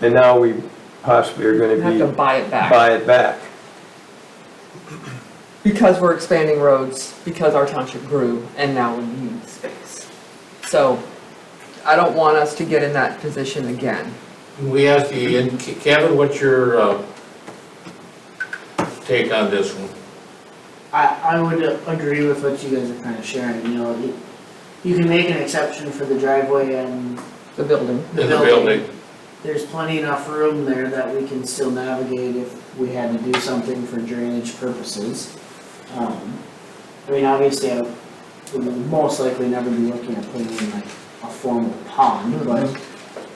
And now we possibly are You have gonna to be, buy it back buy it back. because we're expanding roads, because our township grew and now we need space. So I don't want us to get in that position again. We asked the, and Kevin, what's your, uh, take on this one? I, I would agree with what you guys are kind of sharing, you know, you, you can make an exception for the driveway and The building, the In building. the building, There's plenty enough room there that we can still navigate if we had to do something for drainage purposes. Um, I mean, obviously, I would most likely never be looking at putting in like a formal pond, but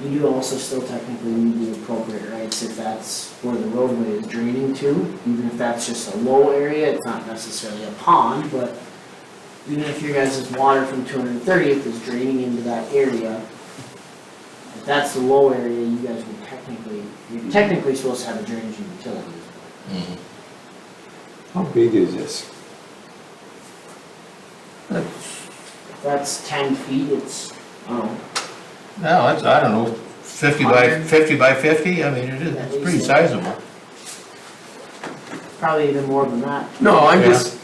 you do also still technically need the appropriate rights if that's where the roadway is draining to, even if that's just a low area, it's not necessarily a pond, but even if your guys' water from two hundred and thirtieth is draining into that area, if that's the low area, you guys would technically, you're technically supposed to have a drainage and utility. Mm-hmm. How big is this? If that's ten feet, it's, oh, no, it's, I don't know, fifty by, Hundred. fifty by fifty, I mean, it is, it's pretty sizable. probably even more than that. No, I'm Yeah. just,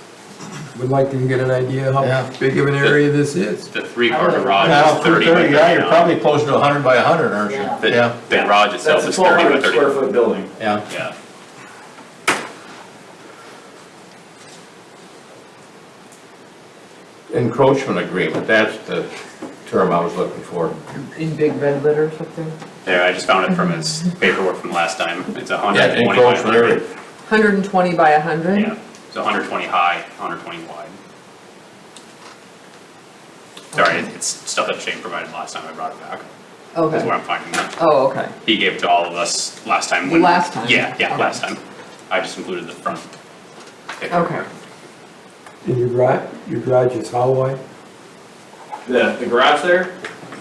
would like to get an idea Yeah. how big of an area this is. The three-car garage Now, is thirty by thirty, yeah, you're thirty-nine. probably closer to hundred by hundred, aren't Yeah. you? Yeah, The garage itself That's a is twelve thirty by hundred square thirty. foot building. yeah. Yeah, Encroachment agreement, that's the term I was looking for. in big red letters up there. there, I just found it from his paperwork from last time. It's a hundred Yeah, and twenty by encroachment hundred. area. Hundred and twenty by hundred? Yeah, it's hundred twenty high, hundred twenty wide. Sorry, it's stuff that Shane provided last time I brought it back, is Okay, where I'm finding that. oh, okay. He gave it to all of us last time when. Last time? Yeah, yeah, Okay. last time. I just included the front. Okay. And your garage, your garage is how wide? The, the garage there,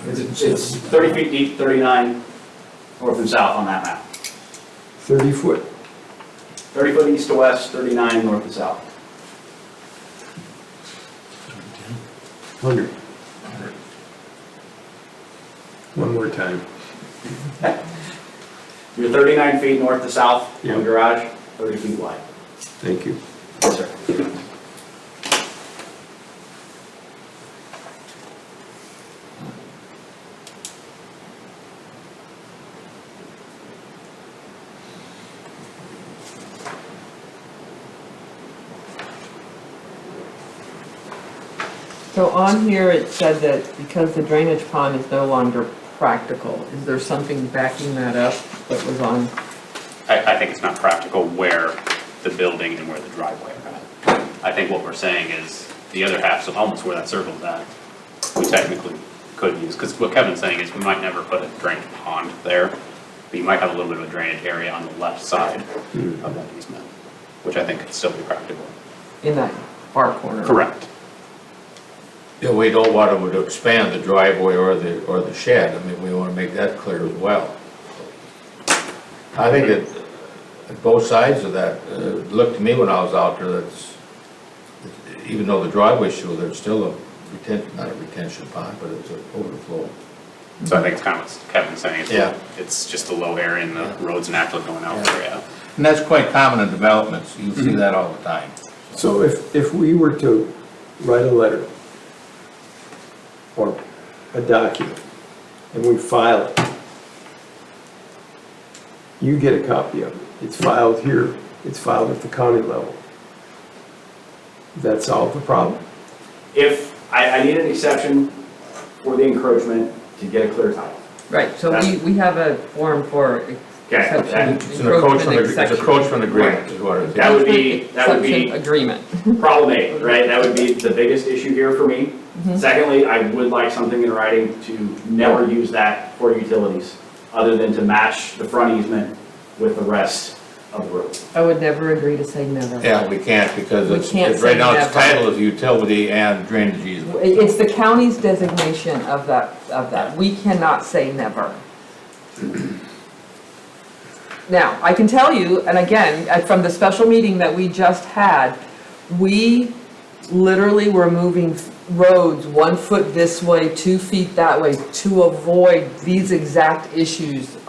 it's, it's thirty feet deep, thirty-nine north and south on that map. Thirty foot? Thirty foot east to west, thirty-nine north and south. Hundred. One more time. You're thirty-nine feet north to south Yeah. on the garage, thirty feet wide. Thank you. Yes, sir. So on here, it said that because the drainage pond is no longer practical, is there something backing that up that was on? I, I think it's not practical where the building and where the driveway are at. I think what we're saying is, the other half's almost where that circle's at, we technically could use, because what Kevin's saying is, we might never put a drainage pond there, but you might have a little bit of a drainage area on the left side of that easement, which I think could still be practical. in that far corner. Correct. Yeah, we don't want them to expand the driveway or the, or the shed, I mean, we wanna make that clear as well. I think that, uh, both sides of that, uh, looked to me when I was out there, that's, even though the driveway's through, there's still a retention, not a retention pond, but it's an overflow. So I think it's kind of what Kevin's saying, Yeah. it's, it's just a low area and the road's naturally going out there, yeah. And that's quite common in developments, you see that all the time. So if, if we were to write a letter or a document and we file it, you get a copy of it. It's filed here. It's filed at the county level. That solve the problem? If, I, I need an exception for the encroachment to get a clear title. Right, so we, we have a form for Okay, exception, that- It's an encroachment, encroachment agree- it's exception. an encroachment agreement is what it is. That would be- that would be- Exception agreement. Problem eight, right, that would be the biggest issue here for me. Secondly, I would like something in writing to never use that for utilities, other than to match the front easement with the rest of the road. I would never agree to say never. Yeah, we can't, because We it's, can't it's- right say now, its never. title is utility and drainage easement. It- It's the county's designation of that, of that. We cannot say never. Now, I can tell you, and again, uh, from the special meeting that we just had, we literally were moving roads one foot this way, two feet that way, to avoid these exact issues